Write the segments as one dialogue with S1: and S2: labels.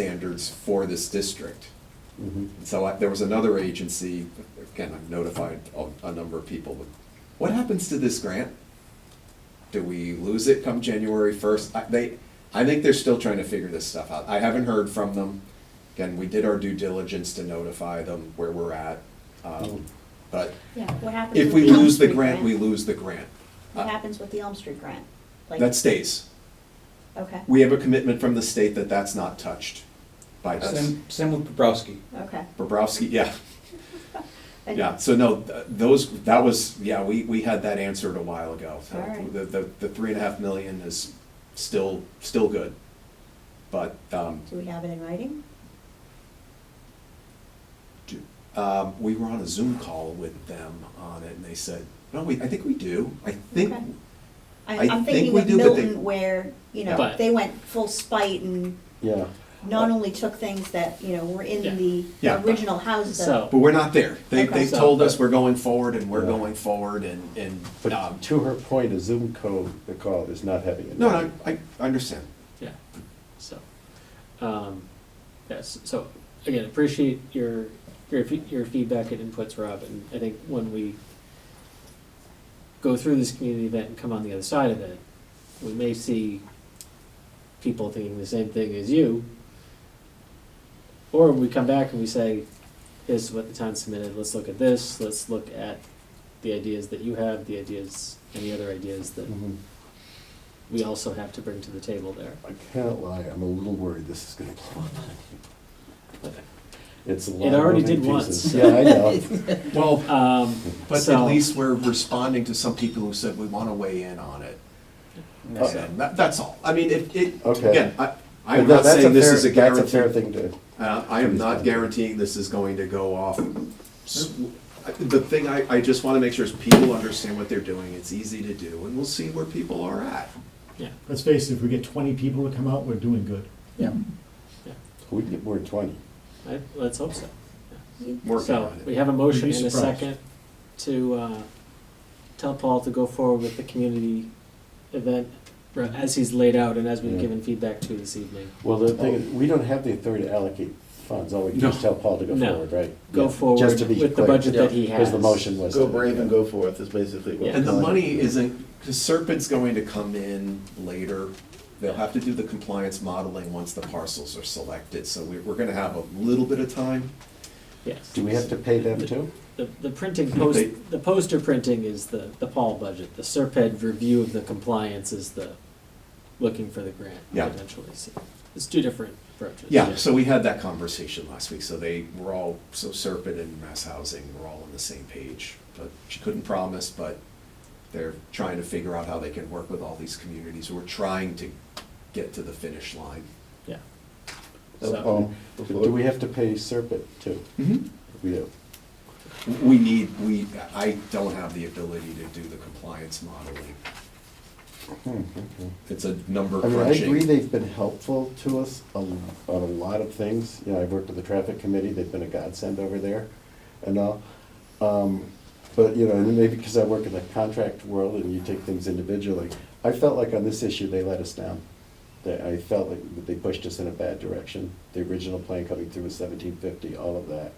S1: standards for this district.
S2: Mm-hmm.
S1: So I- there was another agency, again, I've notified a, a number of people, but what happens to this grant? Do we lose it come January first? I, they, I think they're still trying to figure this stuff out. I haven't heard from them. Again, we did our due diligence to notify them where we're at. Um, But
S3: Yeah, what happens?
S1: if
S3: with
S1: we
S3: the Elm
S1: lose the
S3: Street
S1: grant, we lose the grant. Uh,
S3: What happens with the Elm Street grant? Like,
S1: That stays.
S3: Okay,
S1: We have a commitment from the state that that's not touched by this.
S4: Same, same with Bobrowski.
S3: okay.
S1: Bobrowski, yeah.
S3: And-
S1: Yeah, so no, th- those, that was, yeah, we, we had that answered a while ago. So
S3: All right.
S1: The, the, the three and a half million is still, still good. But, um,
S3: Do we have it in writing?
S1: do- um, we were on a Zoom call with them on it and they said, no, we, I think we do. I think,
S3: Okay.
S1: I
S3: I- I'm
S1: think
S3: thinking
S1: we
S3: of
S1: do, but they-
S3: Milton where, you know,
S5: But-
S3: they went full spite and
S2: Yeah,
S3: not only took things that, you know, were
S5: Yeah.
S3: in the
S1: Yeah.
S3: original houses. that-
S5: So-
S1: but we're not there. They,
S3: Okay.
S1: they
S5: So-
S1: told us we're going forward and we're
S2: Yeah.
S1: going forward and, and, um,
S2: but to her point, a Zoom code, the call is not having it.
S1: no, no, I, I understand.
S5: Yeah, so, um, yes, so, again, appreciate your, your, fe- your feedback and inputs, Rob, and I think when we go through this community event and come on the other side of it, we may see people thinking the same thing as you, or we come back and we say, here's what the town submitted, let's look at this, let's look at the ideas that you have, the ideas, any other ideas that
S2: Mhm.
S5: we also have to bring to the table there.
S2: I can't lie, I'm a little worried this is gonna blow up. It's a lot
S5: It
S2: of
S5: already
S2: moving
S5: did once,
S2: pieces.
S5: so-
S2: Yeah, I know.
S1: Well,
S5: Um,
S1: But at
S5: so-
S1: least we're responding to some people who said we want to weigh in on it.
S2: Yeah.
S1: So that, that's all. I I mean, it, it,
S2: Okay.
S1: again, I, I'm
S2: But that-
S1: not
S2: that's
S1: saying this
S2: fair-
S1: is a
S2: That's a fair
S1: guarantee.
S2: thing to,
S1: Uh, I am not guaranteeing this is going to go off. S- I- The thing I, I just want to make sure is people understand what they're doing. It's easy to do and we'll see where people are at.
S5: Yeah,
S6: Let's face it, if we get twenty people to come out, we're doing good.
S5: yeah,
S2: we'd get more than twenty.
S5: I, let's hope so.
S1: Working
S5: So,
S1: on
S5: we
S1: it.
S5: have a motion
S6: You'd be
S5: and a
S6: surprised.
S5: second to, uh, tell Paul to go forward with the community event re- as he's laid out and as we've
S2: Yeah.
S5: given feedback to this evening.
S2: Well, the thing, is, Oh, we don't have the authority to allocate funds, all we can
S1: No.
S2: just tell Paul to go
S5: No.
S2: forward, right?
S5: Go
S2: Yeah,
S5: forward
S2: just to be
S5: with the
S2: clear,
S5: budget that
S7: Yeah,
S5: he has.
S2: Because the motion was.
S7: Go
S2: to-
S7: brave and go forth is basically what.
S5: Yeah.
S1: And the money isn't, the Serpent's going to come in later. They'll have to do the compliance modeling once the parcels are selected. So we, we're going to have a little bit of time.
S5: Yes.
S2: Do we have to pay them too?
S5: The, the printing
S1: They-
S5: post, the poster printing is the, the Paul budget. The Serped review of the compliance is the looking for the grant
S1: Yeah.
S5: potentially. So It's two different approaches.
S1: Yeah, so we had that conversation last week, so they were all, so Serpent and Mass Housing were all on the same page. But she couldn't promise, but they're trying to figure out how they can work with all these communities who are trying to get to the finish line.
S5: Yeah. So,
S2: Um, Do we have to pay Serpent too? We do.
S1: We need, we, I don't have the ability to do the compliance modeling. It's a number
S2: Hmm, I mean, I agree
S1: crunching.
S2: they've been helpful to us a l- on a lot of things. You know, I've worked with the traffic committee, they've been a godsend over there and all. Um, But, you know, and maybe because I work in the contract world and you take things individually, I felt like on this issue, they let us down. That I felt like that they pushed us in a bad direction. The original plan coming through was seventeen fifty, all of that.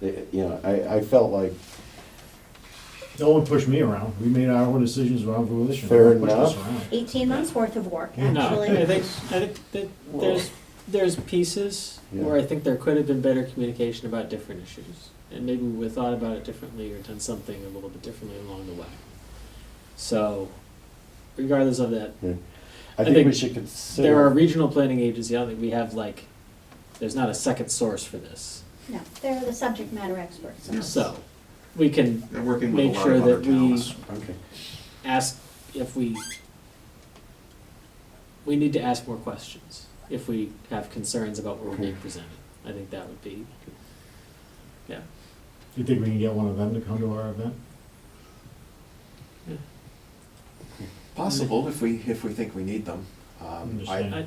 S2: They, you know, I, I felt like
S6: No one pushed me around. We made our own decisions around volition.
S2: Fair
S6: No one pushed us
S2: enough.
S6: around.
S3: Eighteen months worth of work,
S5: no, I
S3: actually.
S5: think, I think that there's, there's pieces where I
S2: Yeah.
S5: think there could have been better communication about different issues. And maybe we thought about it differently or done something a little bit differently along the way. So regardless of that,
S2: I
S5: I
S2: think
S5: think
S2: we should consider.
S5: there are regional planning agency, I don't think we have like, there's not a second source for this.
S3: No, they're the subject matter experts. on this.
S5: So, we can
S1: They're working with a
S5: make
S1: lot
S5: sure
S1: of other
S5: that
S1: towns.
S5: we
S2: Okay.
S5: ask if we, we need to ask more questions if we have concerns about what we're being presented. I think that would be, yeah.
S6: You think we can get one of them to come to our event?
S1: Possible, if we, if we think we need them. Um, I,
S6: Understand.
S5: I,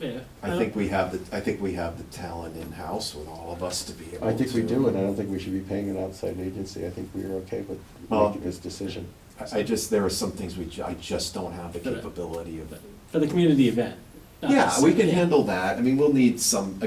S5: yeah.
S1: I think we have the, I think we have the talent in-house with all of us to be able to.
S2: I think we do, and I don't think we should be paying an outside agency. I think we are okay with
S1: Well-
S2: making this decision.
S1: I- I just, there are some things we, ju- I just don't have the
S5: But I-
S1: capability of.
S5: For the community event, not
S1: Yeah,
S5: just-
S1: we can handle that. I mean, we'll need some,